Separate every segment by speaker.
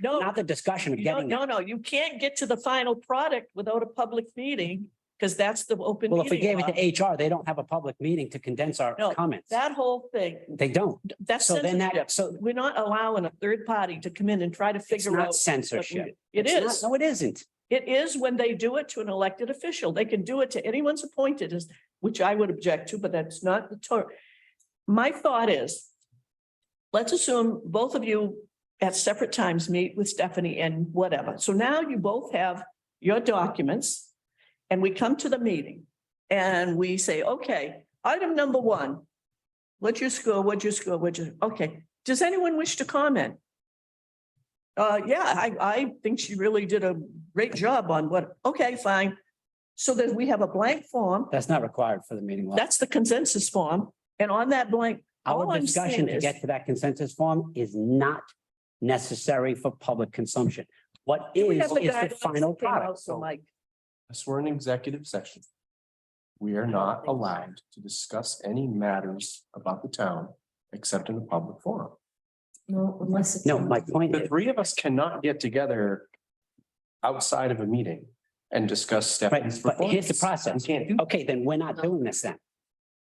Speaker 1: No,
Speaker 2: not the discussion of
Speaker 1: no,
Speaker 2: getting. it.
Speaker 1: no, no, you can't get to the final product without a public meeting, because that's the open.
Speaker 2: Well, if we
Speaker 1: meeting
Speaker 2: gave it
Speaker 1: law.
Speaker 2: to HR, they don't have a public meeting to condense our
Speaker 1: No,
Speaker 2: comments.
Speaker 1: That whole thing,
Speaker 2: They don't.
Speaker 1: that's
Speaker 2: So then
Speaker 1: censorship.
Speaker 2: that, so
Speaker 1: We're not allowing a third party to come in and try to
Speaker 2: it's
Speaker 1: figure out.
Speaker 2: not
Speaker 1: what we-
Speaker 2: censorship.
Speaker 1: It
Speaker 2: It's not-
Speaker 1: is.
Speaker 2: No, it isn't.
Speaker 1: It is when they do it to an elected official. They can do it to anyone's appointed, is- which I would object to, but that's not the term. My thought is, let's assume both of you at separate times meet with Stephanie and whatever. So now you both have your documents and we come to the meeting and we say, okay, item number one, what's your score? What's your score? What's your, okay. Does anyone wish to comment? Uh, yeah, I, I think she really did a great job on what, okay, fine. So then we have a blank form.
Speaker 2: That's not required for the meeting law.
Speaker 1: That's the consensus form. And on that blank, all
Speaker 2: Our
Speaker 1: I'm saying
Speaker 2: discussion to
Speaker 1: is-
Speaker 2: get to that consensus form is not necessary for public consumption. What is,
Speaker 1: we
Speaker 2: is
Speaker 1: have the
Speaker 2: the
Speaker 1: guidelines
Speaker 2: final
Speaker 1: that came out,
Speaker 2: product.
Speaker 1: So Mike,
Speaker 3: Yes, we're in executive session. We are not allowed to discuss any matters about the town except in a public forum.
Speaker 4: No, unless. it's
Speaker 2: No,
Speaker 4: on-
Speaker 2: my point
Speaker 3: The
Speaker 2: is,
Speaker 3: three of us cannot get together outside of a meeting and discuss Stephanie's
Speaker 2: Right, but here's the
Speaker 3: performance.
Speaker 2: process.
Speaker 3: We can't do
Speaker 2: okay, then we're not doing this then.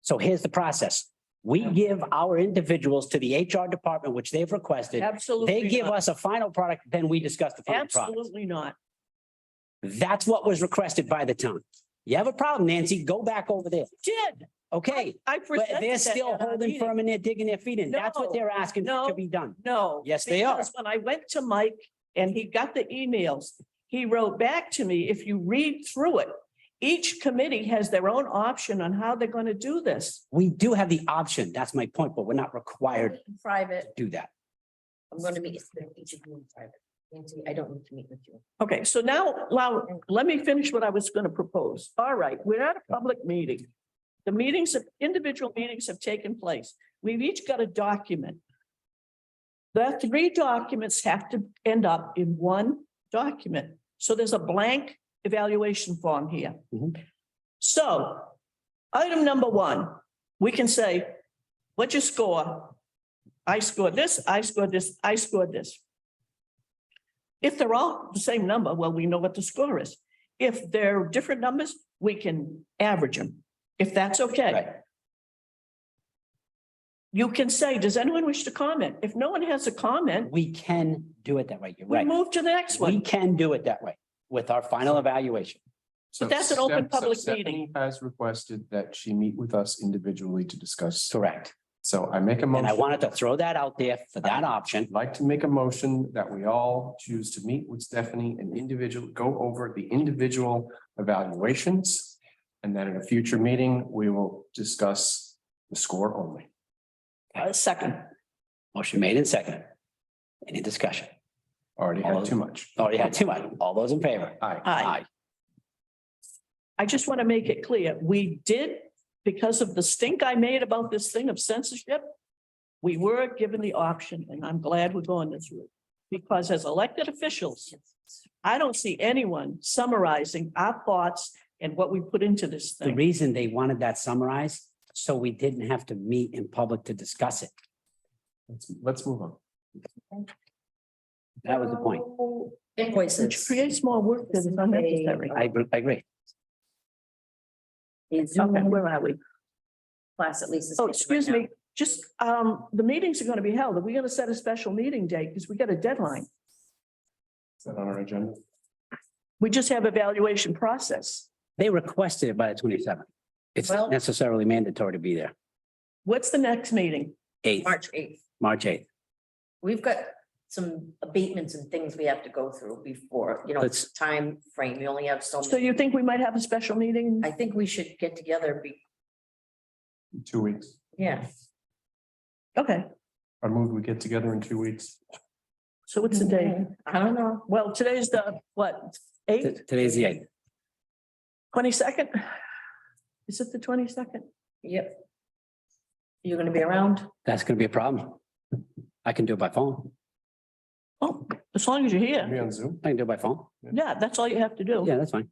Speaker 2: So here's the process. We give our individuals to the HR department, which they've requested.
Speaker 1: absolutely.
Speaker 2: They give
Speaker 1: not.
Speaker 2: us a final product, then we discuss the final product.
Speaker 1: Absolutely not.
Speaker 2: That's what was requested by the town. You have a problem, Nancy, go back over there.
Speaker 1: Did,
Speaker 2: Okay,
Speaker 1: I
Speaker 2: but
Speaker 1: presented.
Speaker 2: they're
Speaker 1: that
Speaker 2: still
Speaker 1: at our
Speaker 2: holding
Speaker 1: meeting.
Speaker 2: firm and they're digging their feet in. That's
Speaker 1: No,
Speaker 2: what they're asking to
Speaker 1: no.
Speaker 2: be done.
Speaker 1: No.
Speaker 2: Yes, they are.
Speaker 1: because When I went to Mike and he got the emails, he wrote back to me, if you read through it, each committee has their own option on how they're going to do this.
Speaker 2: We do have the option. That's my point, but we're not required
Speaker 4: In Private,
Speaker 2: to do that.
Speaker 4: I'm gonna meet with each of you in private. Nancy, I don't need to meet with you.
Speaker 1: Okay, so now, allow let me finish what I was going to propose. All right, we're at a public meeting. The meetings, of individual meetings have taken place. We've each got a document. The three documents have to end up in one document. So there's a blank evaluation form here.
Speaker 2: Mhm.
Speaker 1: So, item number one, we can say, what's your score? I scored this, I scored this, I scored this. If they're all the same number, well, we know what the score is. If they're different numbers, we can average them, if that's
Speaker 2: Right.
Speaker 1: okay. You can say, does anyone wish to comment? If no one has a comment,
Speaker 2: We can do it that way. You're
Speaker 1: we
Speaker 2: right.
Speaker 1: move to the next
Speaker 2: We
Speaker 1: one.
Speaker 2: can do it that way with our final evaluation.
Speaker 3: So
Speaker 1: But that's an open
Speaker 3: Steph- so
Speaker 1: public
Speaker 3: Stephanie
Speaker 1: meeting.
Speaker 3: Has requested that she meet with us individually to discuss.
Speaker 2: Correct.
Speaker 3: So I make a
Speaker 2: And I
Speaker 3: motion,
Speaker 2: wanted to throw that out there for that option.
Speaker 3: like to make a motion that we all choose to meet with Stephanie and individual, go over the individual evaluations. And then in a future meeting, we will discuss the score only.
Speaker 1: Uh, Second,
Speaker 2: Motion made and second. Any discussion?
Speaker 3: Already had too much.
Speaker 2: Already had too much. All those in favor?
Speaker 3: Aye.
Speaker 1: aye. I just want to make it clear, we did, because of the stink I made about this thing of censorship, we were given the option, and I'm glad we're going this route. Because as elected officials, I don't see anyone summarizing our thoughts and what we put into this
Speaker 2: The
Speaker 1: thing.
Speaker 2: reason they wanted that summarized, so we didn't have to meet in public to discuss it.
Speaker 3: Let's, let's move on.
Speaker 2: That was the point.
Speaker 1: Which
Speaker 4: Invoices.
Speaker 1: creates more work that is unnecessary.
Speaker 2: I, agree- I agree.
Speaker 4: The
Speaker 1: Okay,
Speaker 4: Zoom
Speaker 1: where are we?
Speaker 4: class at least. is
Speaker 1: Oh,
Speaker 4: taken
Speaker 1: excuse
Speaker 4: right
Speaker 1: me, just, um, the meetings are going to be held. Are we going to set a special meeting date? Because we got a deadline.
Speaker 3: Is that on our agenda?
Speaker 1: We just have evaluation process.
Speaker 2: They requested it by the twenty-seventh. It's
Speaker 4: Well-
Speaker 2: not necessarily mandatory to be there.
Speaker 1: What's the next meeting?
Speaker 4: now.
Speaker 2: Eighth,
Speaker 4: March eighth.
Speaker 2: March eighth.
Speaker 4: We've got some abatements and things we have to go through before, you know,
Speaker 2: Let's-
Speaker 4: it's time frame. We only have so
Speaker 1: So
Speaker 4: many.
Speaker 1: you think we might have a special meeting?
Speaker 4: I think we should get together. Be,
Speaker 3: Two weeks.
Speaker 4: yeah.
Speaker 1: Okay,
Speaker 3: I move we get together in two weeks.
Speaker 1: so what's the date?
Speaker 4: I don't know.
Speaker 1: Well, today's the, what,
Speaker 2: T-
Speaker 1: eighth,
Speaker 2: Today's the eighth.
Speaker 1: twenty-second? Is it the twenty-second?
Speaker 4: Yep. You're gonna be around?
Speaker 2: That's gonna be a problem. I can do it by phone.
Speaker 1: Oh, as long as you're
Speaker 3: Be
Speaker 1: here.
Speaker 3: on Zoom.
Speaker 2: I can do it by phone.
Speaker 1: Yeah, that's all you have to do.
Speaker 2: Yeah, that's fine.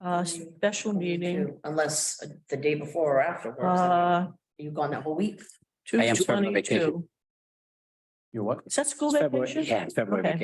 Speaker 1: Uh, special meeting,
Speaker 4: Unless uh, the day before or afterwards.
Speaker 1: uh,
Speaker 4: You gone that whole week?
Speaker 1: two
Speaker 2: I am starting on vacation.
Speaker 1: twenty-two.
Speaker 3: You what?
Speaker 1: Is that school
Speaker 2: It's February.
Speaker 1: vacation?
Speaker 2: Yeah, it's February
Speaker 1: Okay.
Speaker 2: vacation.